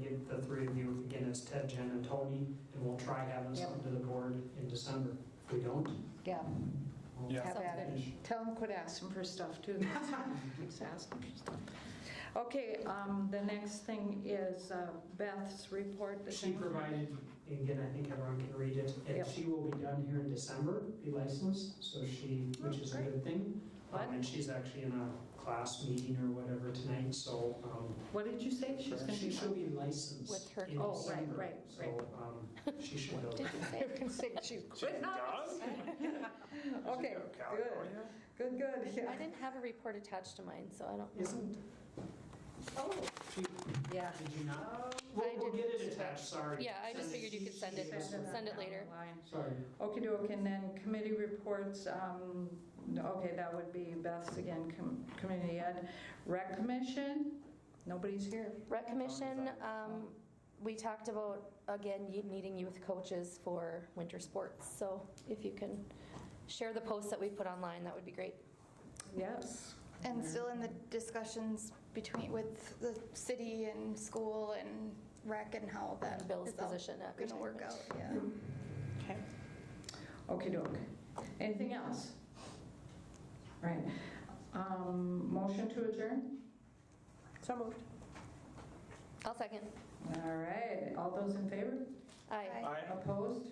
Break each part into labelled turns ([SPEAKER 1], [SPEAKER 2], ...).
[SPEAKER 1] get the three of you, again, it's Ted, Jen, and Tony, and we'll try having
[SPEAKER 2] Yep.
[SPEAKER 1] something to the board in December. If we don't,
[SPEAKER 2] Yeah,
[SPEAKER 1] we'll-
[SPEAKER 3] Yeah.
[SPEAKER 2] have
[SPEAKER 4] Sounds
[SPEAKER 2] at it.
[SPEAKER 1] good.
[SPEAKER 2] Tell him quit asking for stuff, too. Keeps asking for stuff. Okay, um, the next thing is uh, Beth's report. this
[SPEAKER 1] She
[SPEAKER 2] evening.
[SPEAKER 1] provided, and again, I think everyone can read it, and
[SPEAKER 2] Yep.
[SPEAKER 1] she will be done here in December, be licensed, so she,
[SPEAKER 4] Oh,
[SPEAKER 1] which is a good thing.
[SPEAKER 2] What?
[SPEAKER 1] Um, And she's actually in a class meeting or whatever tonight, so um,
[SPEAKER 2] What did you say? She's going
[SPEAKER 1] she
[SPEAKER 2] to
[SPEAKER 1] should
[SPEAKER 2] be...
[SPEAKER 1] be licensed
[SPEAKER 4] With her-
[SPEAKER 1] in
[SPEAKER 2] Oh, right,
[SPEAKER 1] December.
[SPEAKER 2] right,
[SPEAKER 1] So um, she should go.
[SPEAKER 4] Did you
[SPEAKER 2] I
[SPEAKER 4] say?
[SPEAKER 2] can say she's quit. Okay, good, good, good,
[SPEAKER 4] I
[SPEAKER 2] yeah.
[SPEAKER 4] didn't have a report attached to mine, so I don't.
[SPEAKER 1] Isn't,
[SPEAKER 2] Oh,
[SPEAKER 1] she,
[SPEAKER 2] yeah.
[SPEAKER 1] did you not?
[SPEAKER 2] Oh,
[SPEAKER 1] We'll, we'll
[SPEAKER 4] didn't-
[SPEAKER 1] get it attached, sorry.
[SPEAKER 4] Yeah, I
[SPEAKER 1] Send
[SPEAKER 4] just
[SPEAKER 1] it.
[SPEAKER 4] figured you could send it,
[SPEAKER 1] She- she-
[SPEAKER 4] send it later.
[SPEAKER 2] Online.
[SPEAKER 1] Sorry.
[SPEAKER 2] Okay, okay, and then committee reports, um, okay, that would be Beth's again, com- community ed. Rec commission, nobody's here.
[SPEAKER 4] Rec Commission, um, we talked about, again, you- needing youth coaches for winter sports. So if you can share the posts that we put online, that would be great.
[SPEAKER 2] Yes.
[SPEAKER 5] And still in the discussions between, with the city and school and rec and how that
[SPEAKER 4] Bill's
[SPEAKER 5] is all
[SPEAKER 4] position at
[SPEAKER 5] Gonna work out,
[SPEAKER 4] retirement.
[SPEAKER 5] yeah.
[SPEAKER 2] Okay. Okey doke. Anything else? Right. Um, Motion to adjourn? So moved.
[SPEAKER 4] I'll second.
[SPEAKER 2] All right. All those in favor?
[SPEAKER 4] Aye.
[SPEAKER 3] Aye.
[SPEAKER 2] Opposed?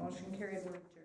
[SPEAKER 2] Motion carried. We're adjourned.